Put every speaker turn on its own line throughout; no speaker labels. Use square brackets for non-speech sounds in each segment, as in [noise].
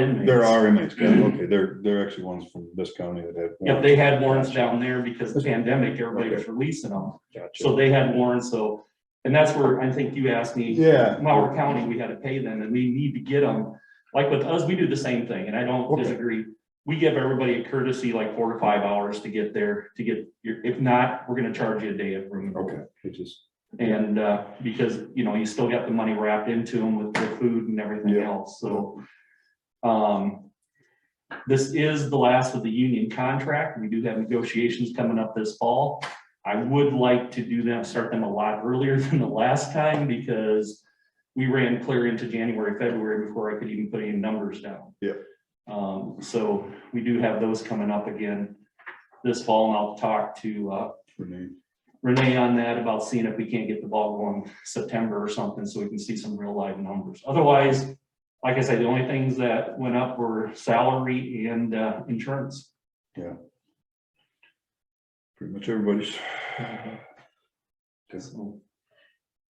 inmates.
There are inmates, yeah, okay, there, there are actually ones from this county that have.
Yep, Mm-hmm. they had warrants down there because of the pandemic, everybody was releasing them. So they had warrants, so, and that's where I think you asked me.
Yeah.
Mauer County, we had to pay them and we need to get them. Like with us, we do the same thing and I don't
Okay.
disagree. We give everybody a courtesy like four to five hours to get there, to get your, if not, we're gonna charge you a day of room. and board.
Okay, it just,
And, uh, because, you know, you still got the money wrapped into them with the food and everything
Yeah.
else, so. Um. This is the last of the union contract. We do have negotiations coming up this fall. I would like to do them, start them a lot earlier [laughs] than the last time because. We ran clear into January, February before I could even put any numbers down.
Yeah.
Um, so we do have those coming up again this fall and I'll talk to, uh,
for me,
Renee on that about seeing if we can't get the ball going September or something, so we can see some real live numbers. Otherwise, like I said, the only things that went up were salary and uh, insurance.
pretty much everybody's,
Mm-hmm. So,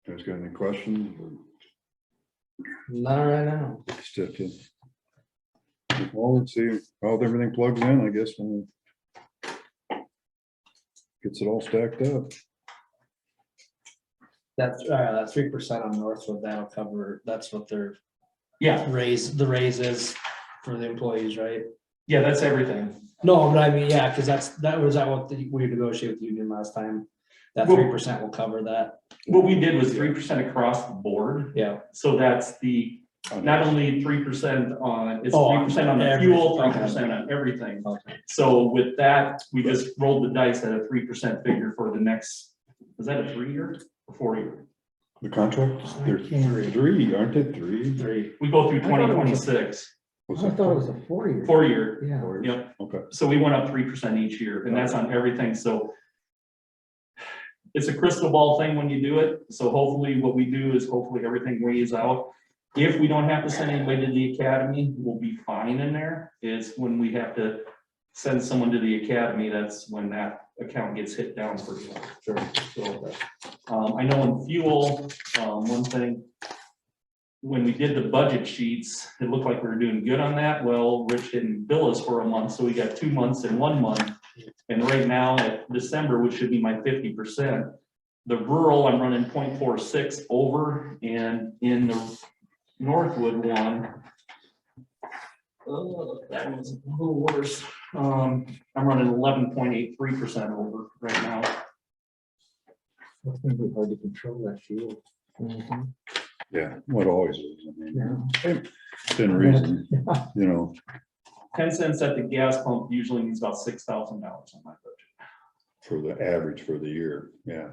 has got any questions?
Not right now.
or Step in. Well, let's see how everything plugs in, I guess, when it gets it all stacked up.
That's, uh, that three percent on Northwood, that'll cover, that's what their
Yeah,
raise, the raise is for the employees, right?
yeah, that's everything.
No, but I mean, yeah, cause that's, that was that what the- we negotiated with the union last time. That
Well-
three percent will cover that,
What we did was three percent across the board,
yeah.
so that's the, not only three percent on, it's
Oh,
three
on
percent on the
everything.
fuel, three percent on everything. So with that, we just rolled the dice at a three percent figure for the next, is that a three-year or four-year?
The contracts, there's three, aren't there three?
Three.
We go through
I thought
twenty
it was
twenty-six.
Was
I thought it was a four year.
Four year,
Yeah.
four?
yep.
Okay.
So we went up three percent each year and that's on everything, so. It's a crystal ball thing when you do it, so hopefully what we do is hopefully everything weighs out. If we don't have to send anybody to the academy, we'll be fine in there. It's when we have to send someone to the academy, that's when that account gets hit down for you. Sure. So, um, I know in fuel, um, one thing, when we did the budget sheets, it looked like we were doing good on that. Well, Rich didn't bill us for a month, so we got two months in one month. And right now, at December, which should be my fifty percent, the rural, I'm running 0.46 over, and in the Northwood one, oh, that one's a little worse. Um, I'm running eleven point eight three percent over right now.
It's gonna be hard to control that fuel.
Yeah, what always is, I mean,
Yeah.
thin reason,
[laughs]
you know,
Ten cents at the gas pump usually means about six thousand dollars on my budget.
for the average for the year, yeah.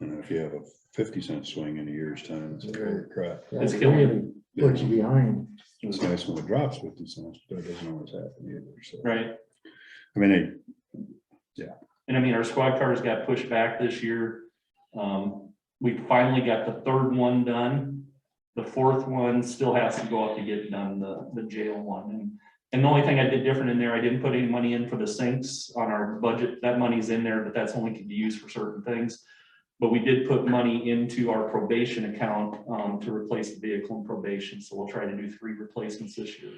And if you have a fifty cent swing in a year's time, it's like, holy crap.
It's
That
killing
really Puts you behind.
It's nice when it drops fifty cents, but it doesn't always happen either, so.
Right?
I mean, it-
And I mean, our squad cars got pushed back this year. Um, we finally got the third one done. The fourth one still has to go up to get done, the, the jail one. And, and the only thing I did different in there, I didn't put any money in for the sinks on our budget. That money's in there, but that's only can be used for certain things. But we did put money into our probation account, um, to replace the vehicle in probation. So we'll try to do three replacements this year.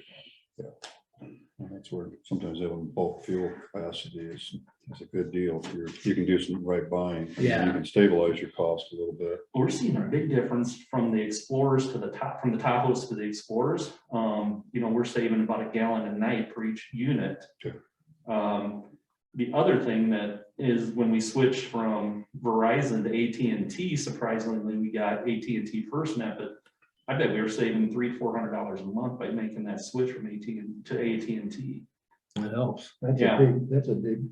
And That's where sometimes having bulk fuel capacity is, is a good deal. If You're, you can do some right buying. and
Yeah.
You can stabilize your cost a little bit.
we're seeing a big difference from the Explorers to the top, from the Tahoes to the Explorers. Um, you know, we're saving about a gallon a night per each unit.
Sure.
Um, the other thing that is when we switch from Verizon to AT&T, surprisingly, we got AT&T FirstNet, but I bet we were saving three, four hundred dollars a month by making that switch from AT to AT&T.
It helps.
That's
Yeah.
a big, that's a big,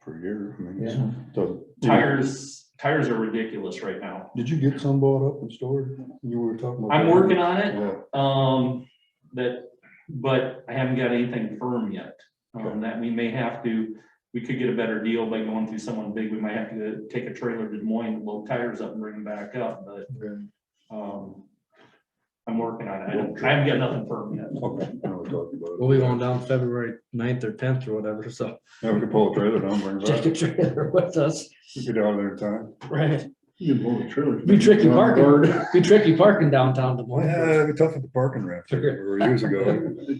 Per year, I mean, it's-
yeah.
doesn't-
Tires, tires are ridiculous right now.
Did you get some bought up and stored? You were talking about.
I'm
that.
working on it.
Yeah,
Um, that, but I haven't got anything firm yet.
Okay.
Um, that we may have to, we could get a better deal by going through someone big. We might have to take a trailer to Des Moines, load tires up and bring them back up, but, um, I'm working on it. I don't, I haven't got nothing firm yet.
okay, now we're talking about it.
We'll be going down February 9th or tenth or whatever, so
Yeah, we could pull a trailer down, bring it
take
back.
a trailer with us.
We could Get out of there in time.
Right.
You can pull the trailer.
Be tricky parking, be tricky parking downtown Des Moines.
Yeah, it'd be tough with the parking ramp, there, where years ago.